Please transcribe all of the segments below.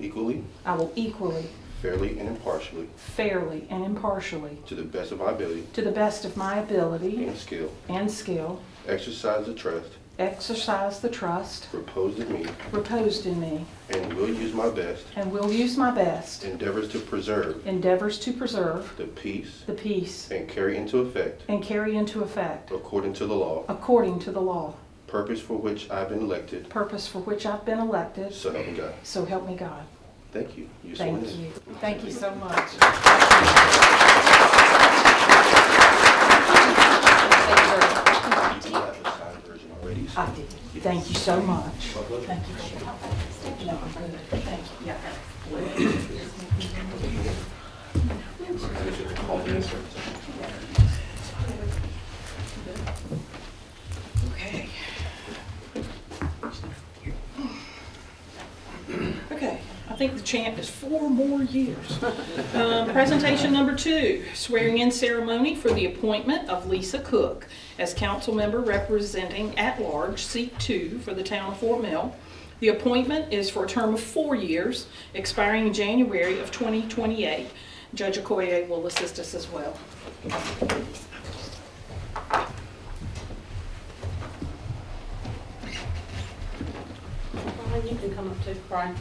equally, I will equally, fairly, and impartially, fairly, and impartially, to the best of my ability to the best of my ability and skill, and skill, exercise the trust exercise the trust reposed in me, reposed in me, and will use my best and will use my best endeavors to preserve endeavors to preserve the peace the peace and carry into effect, and carry into effect, according to the law, according to the law, purpose for which I've been elected, purpose for which I've been elected, so help me God. so help me God. Thank you. You're Thank sworn in. you. Thank you so much. You do have a signed version already, so- I did. Thank you so much. Thank you. No, I'm good. Thank you. Okay. Okay, I think the chant is four more years. Um, Presentation number two, swearing in ceremony for the appointment of Lisa Cook as council member representing at-large seat two for the town of Fort Mill. The appointment is for a term of four years, expiring in January of 2028. Judge Okoye will assist us as well. Brian, Uh, you can come up too, Brian.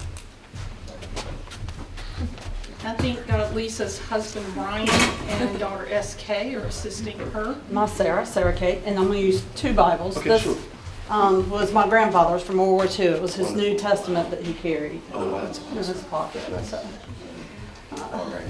I think uh, Lisa's husband Brian and daughter SK are assisting her. My Sarah, Sarah Kate, and I'm gonna use two Bibles. Okay, This, sure. Um, was my grandfather's from World War II. It was his New Testament that he carried Oh, wow. in his pocket, so. All right.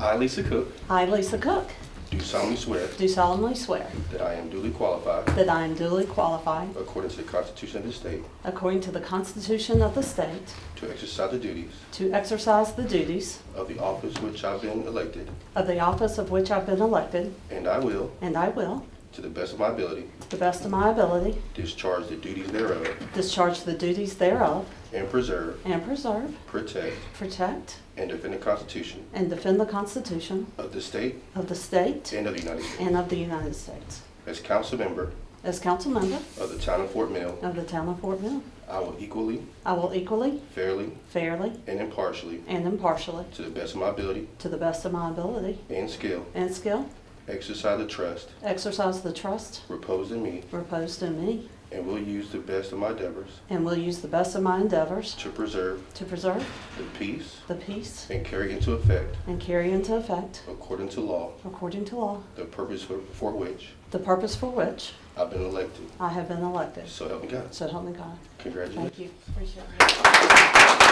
I, Lisa Cook, I, Lisa Cook, do solemnly swear do solemnly swear that I am duly qualified, that I am duly qualified, according to the Constitution of the state, according to the Constitution of the state, to exercise the duties to exercise the duties of the office which I've been elected, of the office of which I've been elected, and I will, and I will, to the best of my ability, to the best of my ability, discharge the duties thereof, discharge the duties thereof, and preserve, and preserve, protect, protect, and defend the Constitution and defend the Constitution of the state of the state and of the United States. and of the United States. As council member As council member of the town of Fort Mill, of the town of Fort Mill, I will equally, I will equally, fairly, fairly, and impartially, and impartially, to the best of my ability to the best of my ability and skill, and skill, exercise the trust exercise the trust reposed in me, reposed in me, and will use the best of my endeavors and will use the best of my endeavors to preserve to preserve the peace the peace and carry into effect, and carry into effect, according to law, according to law, the purpose for, for which the purpose for which I've been elected. I have been elected. So help me God. So help me God. Congratulations. Thank you. Appreciate it.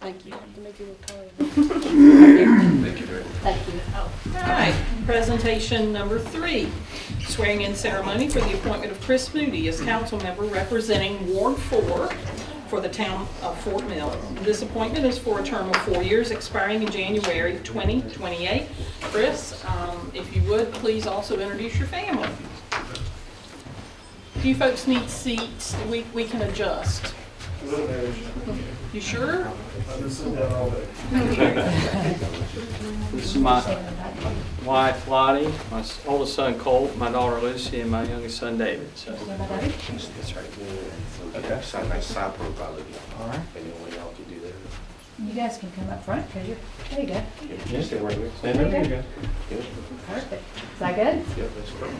Thank you. Thank you very much. Thank you. Alright, presentation number three, swearing in ceremony for the appointment of Chris Moody as council member representing Ward Four for the town of Fort Mill. This appointment is for a term of four years expiring in January 2028. Chris, um, if you would, please also introduce your family. If you folks need seats, we, we can adjust. You sure? This is my wife Lottie, my s- oldest son Colt, my daughter Lucy, and my youngest son David. So That's right. Okay, sign my side profile again. All right. And then we all can do that. You guys can come up front, could you? There you go. You stay right there. There you go. Yeah, Perfect. Is that good? yeah, that's great.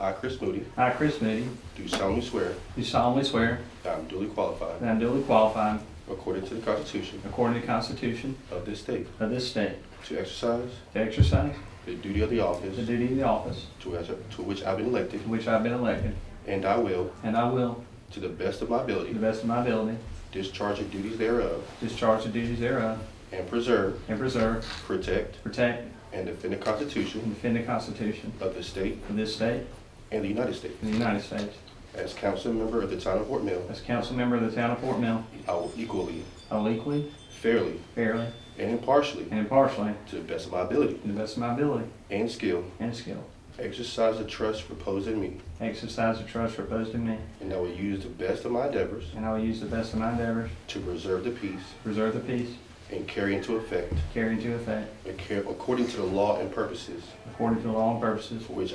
I, Chris Moody, I, Chris Moody, do solemnly swear do solemnly swear that I'm duly qualified, that I am duly qualified, according to the Constitution according to the Constitution of this state, of this state, to exercise to exercise the duty of the office the duty of the office to which to which I've been elected, to which I have been elected, and I will, and I will, to the best of my to ability, the best of my ability, discharge the duties thereof, discharge the duties thereof, and preserve, and preserve, protect, protect, and defend the and Constitution defend the Constitution of the state of this state and the United States. and the United States. As council member of the town of Fort Mill, As a council member of the town of Fort Mill, I will equally, I will equally, fairly, fairly, and impartially, and impartially, to the best of my ability to the best of my ability and skill, and skill, exercise the trust reposed in me, exercise the trust reposed in me, and I will use the best of my endeavors and I will use the best of my endeavors to preserve the peace to preserve the peace, and carry into effect, carry into effect acca- according to the law and purposes according to the law and purposes for which